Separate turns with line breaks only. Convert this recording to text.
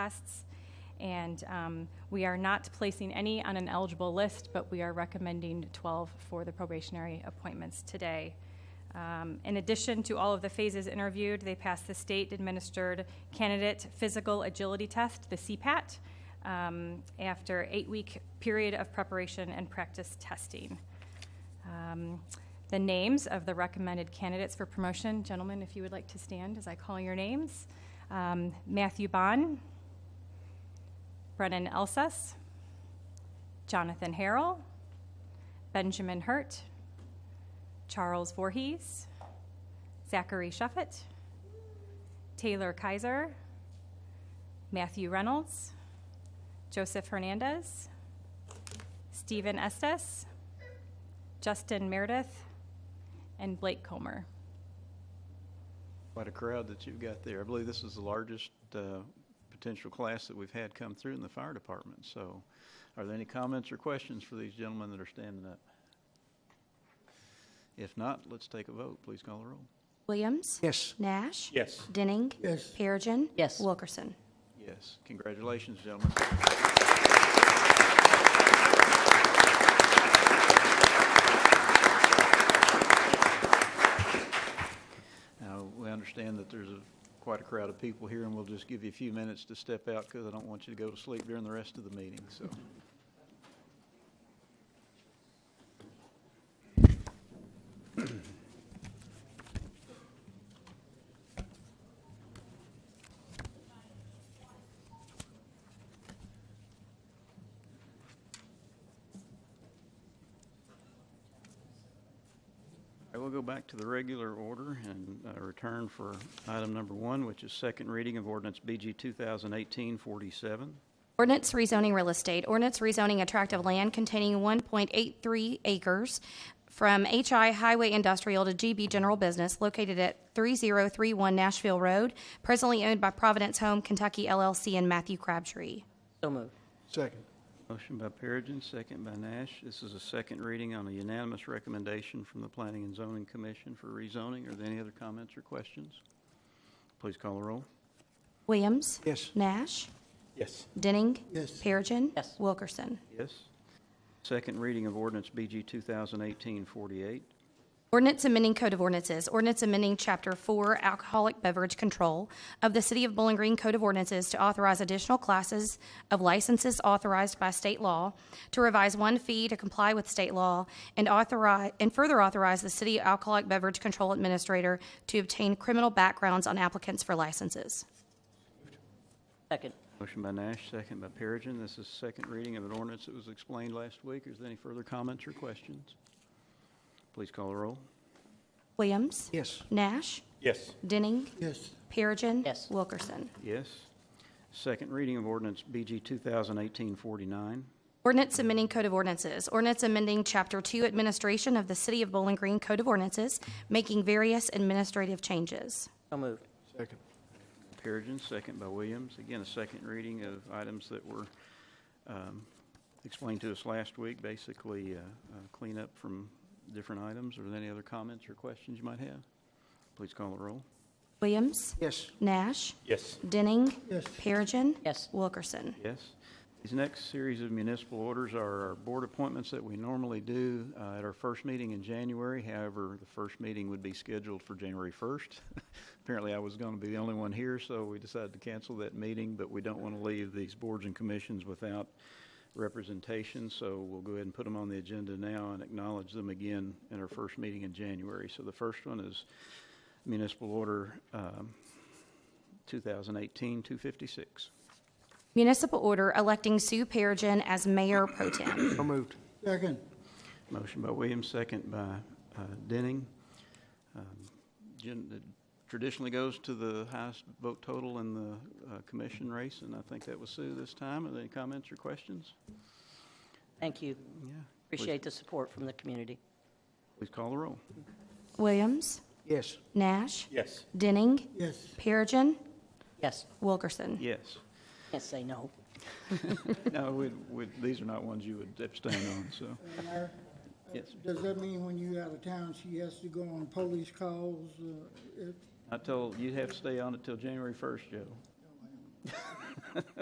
tests. And um, we are not placing any on an eligible list, but we are recommending 12 for the probationary appointments today. Um, In addition to all of the phases interviewed, they passed the state-administered candidate physical agility test, the CPAT, um, after eight-week period of preparation and practice testing. Um, The names of the recommended candidates for promotion, gentlemen, if you would like to stand as I call your names. Um, Matthew Bond, Brennan Elsas, Jonathan Harrell, Benjamin Hurt, Charles Voorhees, Zachary Shuffett, Taylor Kaiser, Matthew Reynolds, Joseph Hernandez, Stephen Estes, Justin Meredith, and Blake Comer.
Quite a crowd that you've got there. I believe this is the largest uh, potential class that we've had come through in the fire department. So are there any comments or questions for these gentlemen that are standing up? If not, let's take a vote. Please call the roll.
Williams.
Yes.
Nash.
Yes.
Denning.
Yes.
Perigin.
Yes.
Wilkerson.
Yes. Congratulations, gentlemen. Now, we understand that there's a, quite a crowd of people here, and we'll just give you a few minutes to step out because I don't want you to go to sleep during the rest of the meeting, so. I will go back to the regular order and uh, return for item number one, which is second reading of ordinance BG 2018-47.
Ordinance rezoning real estate. Ordinance rezoning a tract of land containing 1.83 acres from HI Highway Industrial to GB General Business located at 3031 Nashville Road, presently owned by Providence Home Kentucky LLC and Matthew Crabtree.
So moved.
Second.
Motion by Perigin, second by Nash. This is a second reading on a unanimous recommendation from the Planning and Zoning Commission for rezoning. Are there any other comments or questions? Please call the roll.
Williams.
Yes.
Nash.
Yes.
Denning.
Yes.
Perigin.
Yes.
Wilkerson.
Yes. Second reading of ordinance BG 2018-48.
Ordinance amending Code of Ordinances. Ordinance amending Chapter 4 Alcoholic Beverage Control of the City of Bowling Green Code of Ordinances to authorize additional classes of licenses authorized by state law, to revise one fee to comply with state law, and authorize, and further authorize the City Alcoholic Beverage Control Administrator to obtain criminal backgrounds on applicants for licenses.
Second.
Motion by Nash, second by Perigin. This is second reading of an ordinance that was explained last week. Is there any further comments or questions? Please call the roll.
Williams?
Yes.
Nash?
Yes.
Denning?
Yes.
Perigin?
Yes.
Wilkerson?
Yes. Second reading of ordinance BG 2018-49.
Ordinance amending Code of Ordinances. Ordinance amending Chapter 2 Administration of the City of Bowling Green Code of Ordinances, making various administrative changes.
So moved.
Second.
Perigin, second by Williams. Again, a second reading of items that were um, explained to us last week, basically uh, uh, cleanup from different items. Are there any other comments or questions you might have? Please call the roll.
Williams?
Yes.
Nash?
Yes.
Denning?
Yes.
Perigin?
Yes.
Wilkerson?
Yes. These next series of municipal orders are our board appointments that we normally do uh, at our first meeting in January. However, the first meeting would be scheduled for January 1st. Apparently, I was going to be the only one here, so we decided to cancel that meeting, but we don't want to leave these boards and commissions without representation, so we'll go ahead and put them on the agenda now and acknowledge them again in our first meeting in January. So the first one is municipal order um, 2018-256.
Municipal order electing Sue Perigin as mayor pro tem.
So moved. Second.
Motion by Williams, second by uh, Denning. Um, gen- it Traditionally goes to the highest vote total in the uh, commission race, and I think that was Sue this time. Are there any comments or questions?
Thank you.
Yeah.
Appreciate the support from the community.
Please call the roll.
Williams?
Yes.
Nash?
Yes.
Denning?
Yes.
Perigin?
Yes.
Wilkerson?
Yes.
Can't say no.
No, we, we, these are not ones you would abstain on, so.
Mayor,
Yes.
does that mean when you out of town, she has to go on police calls? uh, if-
I told, you have to stay on it till January 1st, Joe.